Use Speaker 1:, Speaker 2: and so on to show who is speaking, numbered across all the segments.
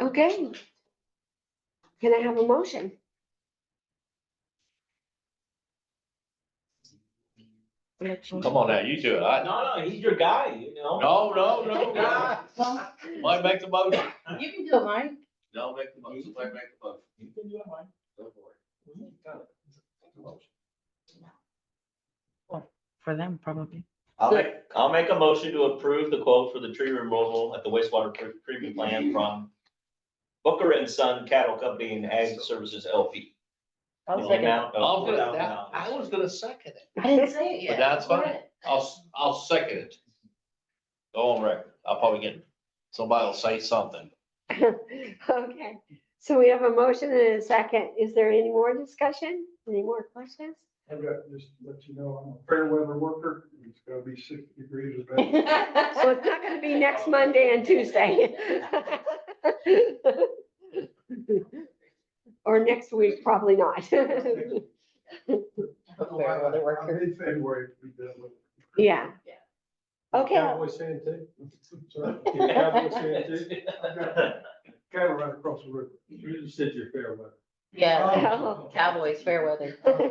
Speaker 1: Okay. Can I have a motion?
Speaker 2: Come on now, you do it. I,
Speaker 3: No, no, he's your guy, you know?
Speaker 2: no, no, no, no.
Speaker 4: Well,
Speaker 2: Mike, make the motion.
Speaker 4: you can do it, Mike.
Speaker 2: No, make the motion. Mike, make the motion.
Speaker 3: You can do it, Mike.
Speaker 2: Go for it. Make the motion.
Speaker 5: for them, probably.
Speaker 3: I'll make, I'll make a motion to approve the quote for the tree removal at the wastewater tre- treatment plant from Booker and Son Cattle Company and Ag Services LP.
Speaker 4: I'll
Speaker 3: In the
Speaker 4: second it.
Speaker 3: amount of
Speaker 2: I was gonna, that-
Speaker 3: $4,000.
Speaker 2: I was gonna second it.
Speaker 4: I didn't say it
Speaker 2: But
Speaker 4: yet.
Speaker 2: that's
Speaker 4: Go
Speaker 2: fine.
Speaker 4: ahead.
Speaker 2: I'll, s- I'll second it. Go on record. I'll probably get, somebody will say something.
Speaker 1: Okay, so we have a motion and a second. Is there any more discussion? Any more questions?
Speaker 6: I've got, uh, just to let you know, I'm a fair weather worker, it's gonna be sixty degrees or better.
Speaker 1: So it's not gonna be next Monday and Tuesday. Or next week, probably not.
Speaker 6: Fair weather worker. In February, we done with.
Speaker 1: Yeah. Okay,
Speaker 6: Cowboy Santa. Sorry, Cowboy Santa. I've got Cattle right across the river. You just said you're fair weather.
Speaker 4: Yeah,
Speaker 1: Oh.
Speaker 4: Cowboys, fair weather.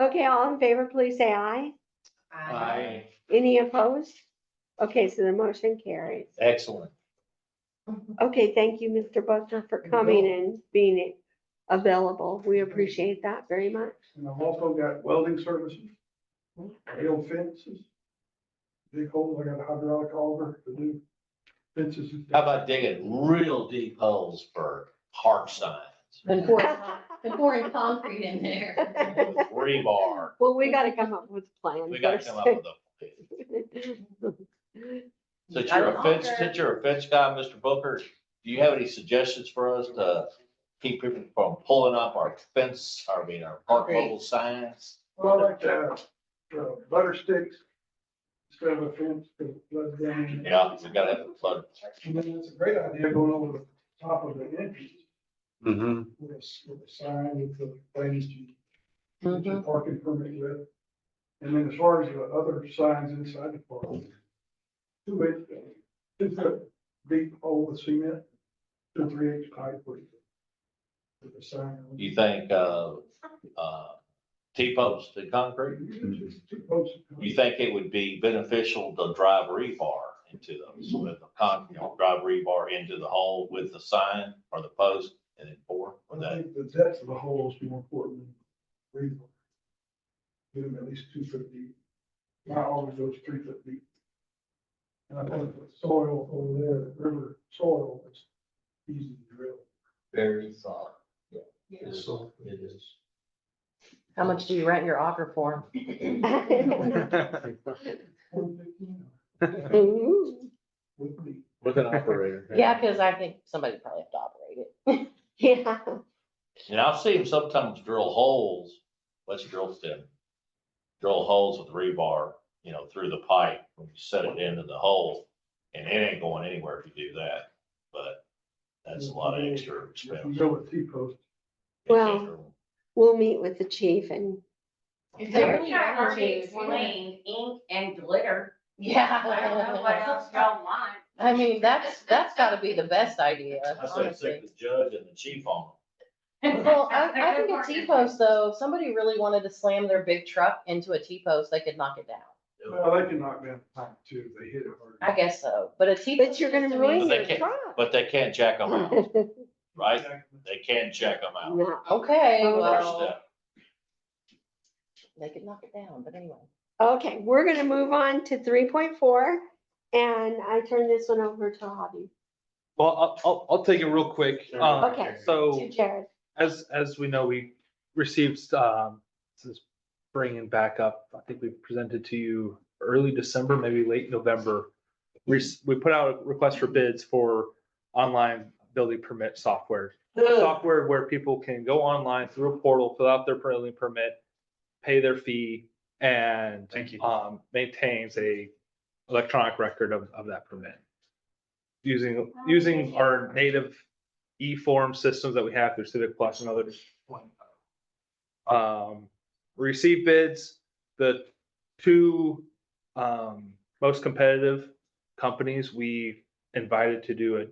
Speaker 1: okay, all in favor, please say aye. Any opposed? Okay, so the motion carries.
Speaker 2: Excellent.
Speaker 1: Okay, thank you, Mr. Buckner, for coming and being available. We appreciate that very much.
Speaker 6: And I've also got welding services, rail fences, big holes, I got a hydraulic auger to do fences. and
Speaker 2: How about digging real deep holes for heart signs?
Speaker 4: Been pouring, been pouring concrete in there.
Speaker 2: with Rebar.
Speaker 1: Well, we gotta come up with a plan
Speaker 2: We gotta
Speaker 1: first.
Speaker 2: come up with a. Since you're a fence, since you're a fence guy, Mr. Booker, do you have any suggestions for us to keep people from pulling up our fence, I mean, our park mobile signs?
Speaker 6: Well, like, uh, uh, butter sticks, instead of a fence, because it floods down.
Speaker 2: Yeah, we gotta have it flooded.
Speaker 6: And then it's a great idea going over the top of the entrance
Speaker 2: Mm-hmm.
Speaker 6: with a, s- with a sign with the things you, that
Speaker 2: Mm-hmm.
Speaker 6: your parking permit with. And then as far as the other signs inside the park, two inch, two foot deep hole with cement, two, three inch pipe with, with a sign. on it.
Speaker 2: You think, uh, uh, T-post and concrete?
Speaker 6: Just Two posts.
Speaker 2: You think it would be beneficial to drive rebar into those with the con, you know, drive rebar into the hole with the sign or the post and then pour? Would
Speaker 6: I
Speaker 2: that,
Speaker 6: think the depth of the hole is more important than rebar. Get them at least two foot deep. Mine always goes three foot deep. And I think the soil over there, the river soil, it's easy to drill.
Speaker 3: Very solid.
Speaker 6: So it is.
Speaker 5: How much do you rent your offer for?
Speaker 1: Ooh,
Speaker 6: Would be.
Speaker 7: With an operator.
Speaker 5: Yeah, because I think somebody probably have to operate it.
Speaker 1: Yeah,
Speaker 2: and I've seen sometimes drill holes, let's drill stem. Drill holes with rebar, you know, through the pipe, when you set it into the hole. And it ain't going anywhere if you do that, but that's a lot of extra
Speaker 6: If you
Speaker 2: expense.
Speaker 6: go with T post,
Speaker 1: Well- we'll meet with the chief and,
Speaker 4: If they
Speaker 8: They're
Speaker 4: really
Speaker 8: trying to
Speaker 4: want to,
Speaker 8: already
Speaker 4: it's one-
Speaker 8: explain ink and glitter. I don't know what else
Speaker 4: Yeah.
Speaker 8: y'all want.
Speaker 5: I mean, that's, that's gotta be the best idea,
Speaker 2: I said,
Speaker 5: honestly.
Speaker 2: sick the judge and the chief on them.
Speaker 5: Well, I, I think a T-post though, if somebody really wanted to slam their big truck into a T-post, they could knock it down.
Speaker 6: well, they can knock down the pipe too, if they hit it hard.
Speaker 5: I guess so, but a T-post.
Speaker 1: but you're gonna
Speaker 5: just
Speaker 1: ruin
Speaker 5: means-
Speaker 1: your
Speaker 2: They can't- But they can't jack them out,
Speaker 1: truck.
Speaker 2: right? They can't jack them out.
Speaker 1: No.
Speaker 5: Okay,
Speaker 1: Oh.
Speaker 2: First
Speaker 5: well,
Speaker 2: step.
Speaker 5: they could knock it down, but anyway.
Speaker 1: Okay, we're gonna move on to three point four, and I turn this one over to Hobby,
Speaker 7: Well, I'll, I'll, I'll take it real quick. Um,
Speaker 1: Okay. to
Speaker 7: So
Speaker 1: Jared.
Speaker 7: as, as we know, we received, um, since bringing back up, I think we presented to you early December, maybe late November. We, s- we put out a request for bids for online building permit software. Software where people can go online through a portal, fill out their building permit, pay their fee and.
Speaker 6: Thank you.
Speaker 7: Um, maintains a electronic record of, of that permit. Using, using our native e-form systems that we have through Civic Plus and others. Um, we received bids, the two, um, most competitive companies we invited to do a